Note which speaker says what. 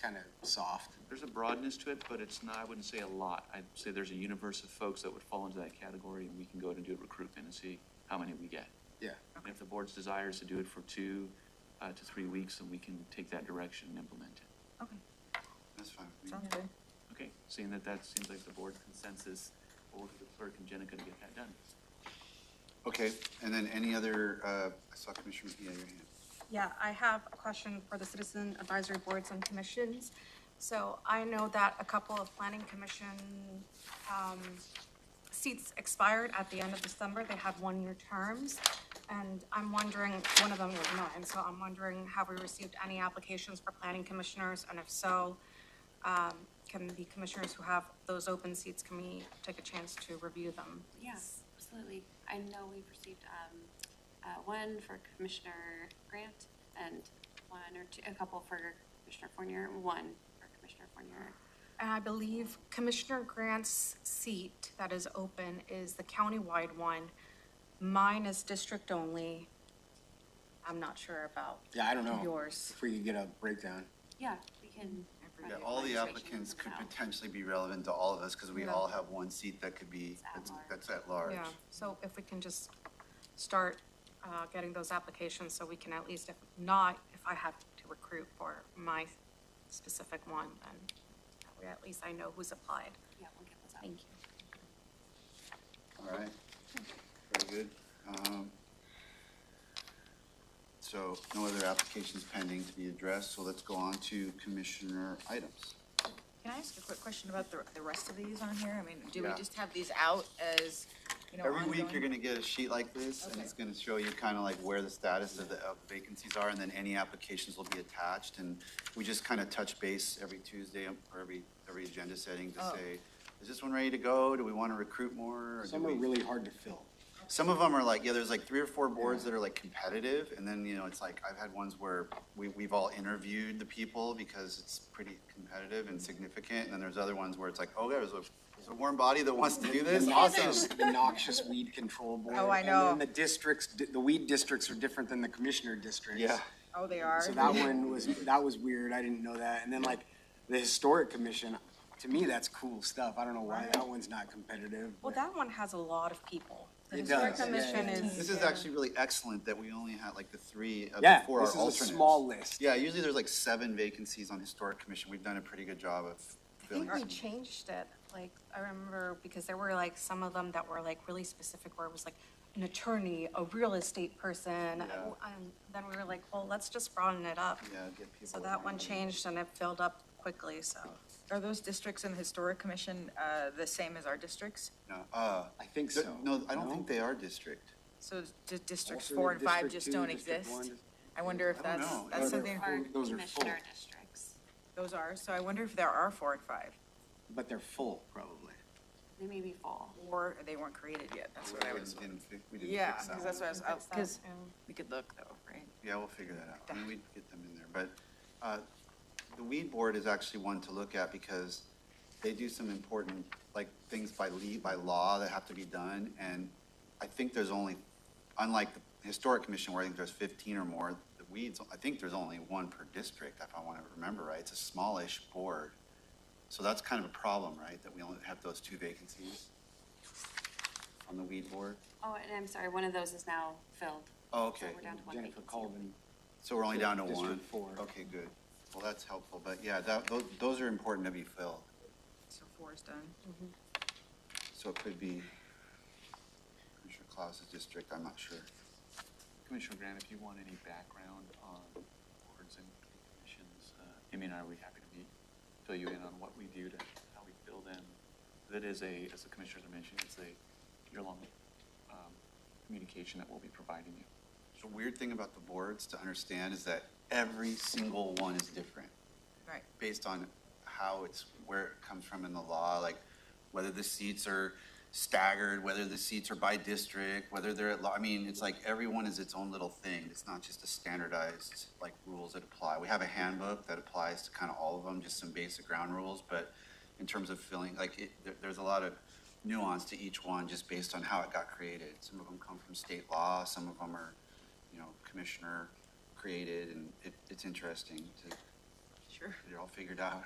Speaker 1: kind of soft.
Speaker 2: There's a broadness to it, but it's not, I wouldn't say a lot. I'd say there's a universe of folks that would fall into that category and we can go out and do a recruitment and see how many we get.
Speaker 1: Yeah.
Speaker 2: And if the board's desire is to do it for two, uh, to three weeks, then we can take that direction and implement it.
Speaker 3: Okay,
Speaker 1: That's fine.
Speaker 3: sounds good.
Speaker 2: Okay, seeing that that seems like the board consensus, we'll work with the clerk and Jenica to get that done.
Speaker 1: Okay, and then any other, uh, I saw Commissioner, yeah, your hand.
Speaker 4: Yeah, I have a question for the citizen advisory boards and commissions. So I know that a couple of planning commission, um, seats expired at the end of December. They had one-year terms. And I'm wondering, one of them was mine, so I'm wondering, have we received any applications for planning commissioners? And if so, um, can the commissioners who have those open seats, can we take a chance to review them?
Speaker 5: Yes, absolutely. I know we've received, um, uh, one for Commissioner Grant and one or two, a couple for Commissioner Fournier, one for Commissioner Fournier.
Speaker 4: And I believe Commissioner Grant's seat that is open is the countywide one. Mine is district only. I'm not sure about.
Speaker 1: Yeah, I don't know.
Speaker 4: Yours.
Speaker 1: If we could get a breakdown.
Speaker 5: Yeah, we can.
Speaker 3: Every-
Speaker 6: Yeah,
Speaker 5: probably
Speaker 6: all the
Speaker 5: registration
Speaker 6: applicants could
Speaker 5: out.
Speaker 6: potentially be relevant to all of us, because we
Speaker 4: Yeah.
Speaker 6: all have one seat that could be,
Speaker 5: It's at
Speaker 6: that's,
Speaker 5: large.
Speaker 6: that's at large.
Speaker 4: Yeah, so if we can just start, uh, getting those applications so we can at least, if not, if I have to recruit for my specific one, then that way at least I know who's applied.
Speaker 5: Yeah, we'll get those out.
Speaker 4: Thank you.
Speaker 6: All right, very good. Um, So no other applications pending to be addressed, so let's go on to commissioner items.
Speaker 3: Can I ask a quick question about the, the rest of these on here? I mean, do we
Speaker 6: Yeah.
Speaker 3: just have these out as, you know,
Speaker 6: Every week, you're
Speaker 3: ongoing?
Speaker 6: gonna get a sheet like this, and it's gonna show you kind of like where the status of the of vacancies are, and then any applications will be attached, and we just kind of touch base every Tuesday um, or every, every agenda setting to
Speaker 3: Oh.
Speaker 6: say, is this one ready to go? Do we want to recruit more? or do
Speaker 1: Some are
Speaker 6: we-"
Speaker 1: really hard to fill.
Speaker 6: Some of them are like, yeah, there's like three or four boards that are like competitive, and then, you know, it's like, I've had ones where we, we've all interviewed the people because it's pretty competitive and significant, and then there's other ones where it's like, oh, there's a, there's a warm body that wants to do
Speaker 1: The
Speaker 6: this,
Speaker 1: noxious,
Speaker 6: awesome.
Speaker 1: the noxious weed control board.
Speaker 3: Oh, I
Speaker 1: And
Speaker 3: know.
Speaker 1: then the districts, the weed districts are different than the commissioner districts.
Speaker 6: Yeah.
Speaker 3: Oh, they are?
Speaker 1: So that one was, that was weird. I didn't know that. And then like the historic commission, to me, that's cool stuff. I don't know why that one's not competitive.
Speaker 4: Well,
Speaker 1: but-
Speaker 4: that one has a lot of people. The
Speaker 1: It
Speaker 4: historic
Speaker 1: does, yeah,
Speaker 4: commission
Speaker 1: yeah, yeah.
Speaker 4: is.
Speaker 6: This is actually really excellent that we only had like the three of the
Speaker 1: Yeah,
Speaker 6: four are
Speaker 1: this
Speaker 6: alternates.
Speaker 1: is a small list.
Speaker 6: Yeah, usually there's like seven vacancies on historic commission. We've done a pretty good job of
Speaker 4: I
Speaker 6: filling.
Speaker 4: think we
Speaker 6: some.
Speaker 4: changed it, like, I remember, because there were like some of them that were like really specific, where it was like an attorney, a real estate person, and
Speaker 6: Yeah.
Speaker 4: then we were like, well, let's just broaden it up.
Speaker 6: Yeah, get people.
Speaker 4: So that one
Speaker 6: around.
Speaker 4: changed and it filled up quickly, so.
Speaker 3: Are those districts in the historic commission, uh, the same as our districts?
Speaker 6: No, uh,
Speaker 1: I think
Speaker 6: th-
Speaker 1: so.
Speaker 6: no, I don't think they are district.
Speaker 3: So di- districts
Speaker 1: Alternate
Speaker 3: four and five
Speaker 1: district
Speaker 3: just
Speaker 1: two,
Speaker 3: don't
Speaker 1: district
Speaker 3: exist?
Speaker 1: one, district-
Speaker 3: I wonder if
Speaker 6: I don't
Speaker 3: that's,
Speaker 6: know.
Speaker 3: that's
Speaker 1: Those are-
Speaker 3: something,
Speaker 5: Our
Speaker 1: those are
Speaker 5: commissioner
Speaker 1: full.
Speaker 5: districts.
Speaker 3: those are, so I wonder if there are four and five,
Speaker 1: But they're full, probably.
Speaker 5: They may be full.
Speaker 3: or they weren't created yet, that's what I would.
Speaker 6: Didn't fi- We didn't
Speaker 3: Yeah,
Speaker 6: fix that one.
Speaker 3: because that's what I was,
Speaker 4: Fix that,
Speaker 3: because
Speaker 4: and-
Speaker 3: we could look though, right?
Speaker 6: Yeah, we'll figure that out. I mean, we'd get them in there, but, uh, the weed board is actually one to look at because they do some important, like, things by lea, by law that have to be done, and I think there's only, unlike the historic commission where I think there's fifteen or more, the weeds, I think there's only one per district, if I want to remember right. It's a smallish board. So that's kind of a problem, right, that we only have those two vacancies on the weed board?
Speaker 5: Oh, and I'm sorry, one of those is now filled.
Speaker 6: Oh, okay.
Speaker 5: So we're down to one
Speaker 1: Jennifer
Speaker 5: vacancy.
Speaker 1: Colvin.
Speaker 6: So we're only down to
Speaker 1: District
Speaker 6: one?
Speaker 1: four.
Speaker 6: Okay, good. Well, that's helpful, but yeah, that, those, those are important to be filled,
Speaker 3: So four is done.
Speaker 6: so it could be Commissioner Claus's district, I'm not sure.
Speaker 2: Commissioner Grant, if you want any background on boards and commissions, uh, Amy and I would be happy to meet, fill you in on what we do to how we fill them. That is a, as the commissioners are mentioning, it's a year-long um, communication that we'll be providing you.
Speaker 6: The weird thing about the boards to understand is that every single one is different.
Speaker 3: Right.
Speaker 6: based on how it's, where it comes from in the law, like whether the seats are staggered, whether the seats are by district, whether they're at law, I mean, it's like everyone is its own little thing. It's not just a standardized, like, rules that apply. We have a handbook that applies to kind of all of them, just some basic ground rules, but in terms of filling, like, it, there, there's a lot of nuance to each one just based on how it got created. Some of them come from state law, some of them are, you know, commissioner created, and it, it's interesting to
Speaker 3: future.
Speaker 6: They're all figured out.